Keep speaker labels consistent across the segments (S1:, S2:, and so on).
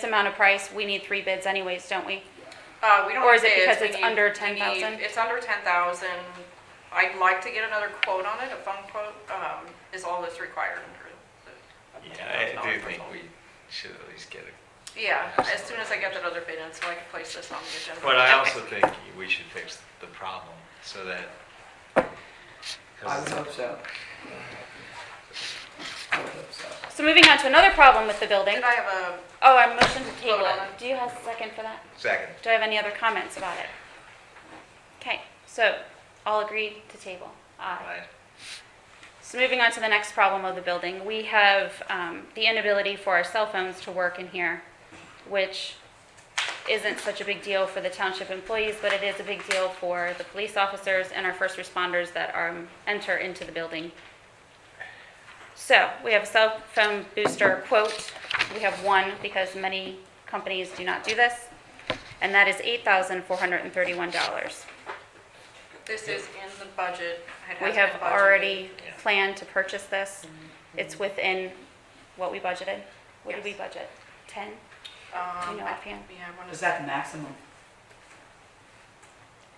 S1: this amount of price, we need three bids anyways, don't we?
S2: Uh, we don't.
S1: Or is it
S2: need bids,
S1: because
S2: we
S1: it's
S2: need-
S1: under
S2: we need-
S1: 10,000?
S2: It's under ten thousand. I'd like to get another quote on it. A phone quote, um, is all that's required under the.
S3: Yeah, I do
S2: $10,000
S3: think
S2: result.
S3: we should at least get a,
S2: Yeah, as soon as I get that other bid in, so I can place this on the agenda.
S3: but I
S2: Okay.
S3: also think we should fix the problem so that.
S4: I would hope so. I would hope so.
S1: So moving on to another problem with the building.
S2: Did I have a,
S1: Oh, I motion to table
S2: Hold
S1: it.
S2: on.
S1: Do you have a second for that?
S3: Second.
S1: Do I have any other comments about it? Okay, so all agreed to table. Aye.
S3: Aye.
S1: So moving on to the next problem of the building, we have um, the inability for our cell phones to work in here, which isn't such a big deal for the township employees, but it is a big deal for the police officers and our first responders that um, enter into the building. So we have a cell phone booster quote. We have one because many companies do not do this, and that is $8,431.
S2: this is in the budget. It
S1: We
S2: has
S1: have
S2: been budgeted.
S1: already
S3: Yeah.
S1: planned to purchase this. It's within what we budgeted. What did we
S2: Yes.
S1: budget? 10?
S2: Um,
S1: you know
S2: I-
S1: offhand?
S2: Yeah, I wanna
S4: Is
S2: say,
S4: that the maximum?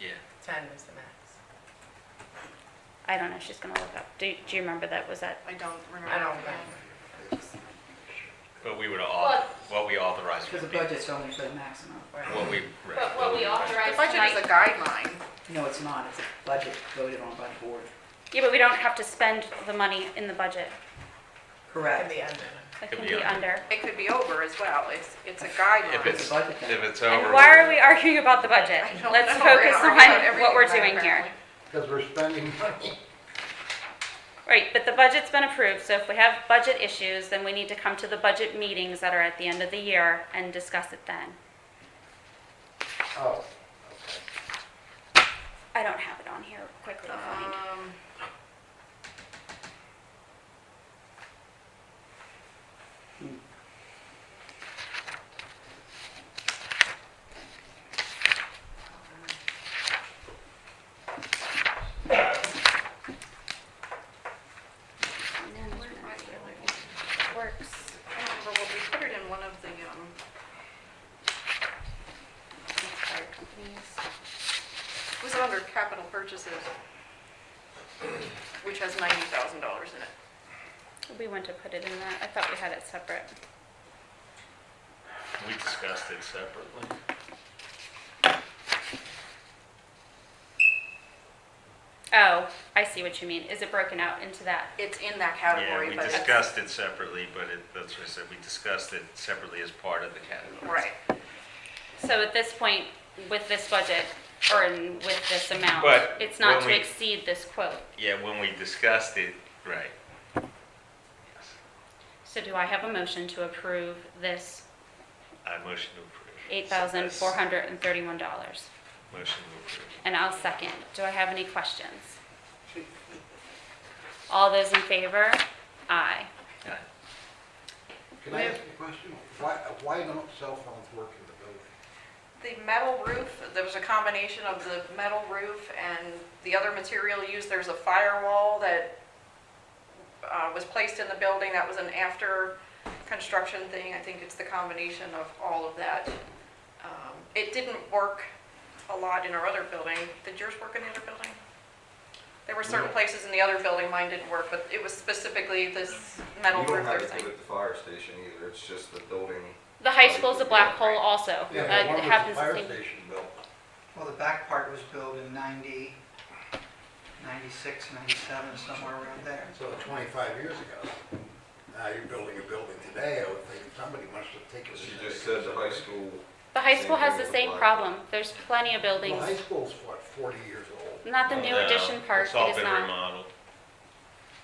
S3: Yeah.
S5: Ten was the max.
S1: I don't know, she's gonna look up. Do, do you remember that? Was that,
S2: I don't remember.
S5: I don't
S2: Yeah.
S5: remember.
S3: But we would all, what we authorized
S4: Because the
S3: would be, what
S4: budget's only for the maximum.
S3: we.
S1: But what we
S2: The
S1: authorized-
S2: budget is a guideline.
S4: No, it's not. It's a budget voted on by the board.
S1: yeah, but we don't have to spend the money in the budget.
S5: Can
S4: Correct.
S5: be under.
S1: It
S3: Could
S1: can
S3: be
S1: be
S3: under.
S1: under.
S2: It could be over as well. It's, it's a guideline.
S3: If it's,
S4: It's a budget thing.
S3: if it's over.
S1: And why are we arguing about the budget?
S2: I don't
S1: Let's
S2: know. We're
S1: focus
S2: arguing about
S1: on what we're
S2: everything
S1: doing here.
S2: apparently.
S6: Because we're spending money.
S1: Right, but the budget's been approved, so if we have budget issues, then we need to come to the budget meetings that are at the end of the year and discuss it then.
S6: Oh,
S1: I don't have it on here quickly to find.
S2: Um, Uh,
S1: Works.
S2: I don't remember what we put it in one of the, um,
S1: Fire companies.
S2: it was under capital purchases, which has ninety thousand dollars in it.
S1: We want to put it in that. I thought we had it separate.
S3: We discussed it separately.
S1: Oh, I see what you mean. Is it broken out into that?
S2: It's in that
S3: Yeah,
S2: category,
S3: we
S2: but it's.
S3: discussed it separately, but it, that's what I said, we discussed it separately as part of the category.
S2: Right.
S1: So at this point, with this budget or in- with this amount,
S3: But
S1: it's not
S3: when
S1: to
S3: we-
S1: exceed this quote.
S3: Yeah, when we discussed it, right. Yes.
S1: So do I have a motion to approve this
S3: I motion to approve.
S1: eight thousand four hundred and thirty-one dollars?
S3: Motion to approve.
S1: And I'll second. Do I have any questions? All those in favor? Aye.
S3: Aye.
S6: can I ask you a question? Why, why don't cell phones work in the building?
S2: The metal roof, there was a combination of the metal roof and the other material used. There's a firewall that uh, was placed in the building. That was an after construction thing. I think it's the combination of all of that. Um, It didn't work a lot in our other building. Did yours work in the other building? There were certain
S7: No.
S2: places in the other building mine didn't work, but it was specifically this metal
S7: You don't
S2: roof they're
S7: have to do it
S2: saying.
S7: at the fire station either, it's just the building.
S1: The high school's a black hole also.
S6: Yeah,
S1: Uh,
S6: why
S1: It
S6: was the
S1: happens the
S6: Fire
S1: same.
S6: station built.
S8: Well, the back part was built in 90, 96, 97, somewhere around there.
S6: So 25 years ago, now you're building a building today, I would think somebody must have taken.
S7: As
S6: this
S7: you
S6: into
S7: just said, the high
S6: consideration.
S7: school,
S1: The high
S7: Same
S1: school has
S7: thing
S1: the
S7: with the
S1: same
S7: black
S1: problem. There's plenty of buildings.
S6: Well, high school's what, 40 years old?
S1: Not the new
S3: No,
S1: addition part,
S3: uh, It's all
S1: it is
S3: been
S1: not.
S3: remodeled.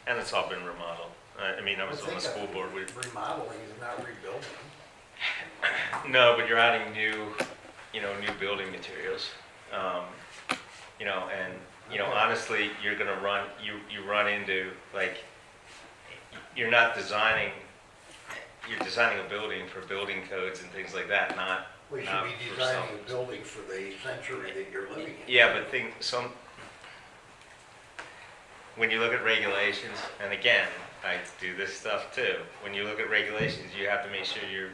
S3: And it's all been remodeled. I, I mean, I was on
S6: think
S3: the school
S6: of
S3: board with,
S6: Remodeling is not rebuilding.
S3: no, but you're adding new, you know, new building materials. Um, you know, and, you know,
S6: Okay.
S3: honestly, you're gonna run, you, you run into, like, you're not designing, you're designing a building for building codes and things like that, not,
S6: We should
S3: not
S6: be
S3: for
S6: designing
S3: some-
S6: a building for the century that you're living in.
S3: Yeah, but think some, when you look at regulations, and again, I do this stuff too, when you look at regulations, you have to make sure you're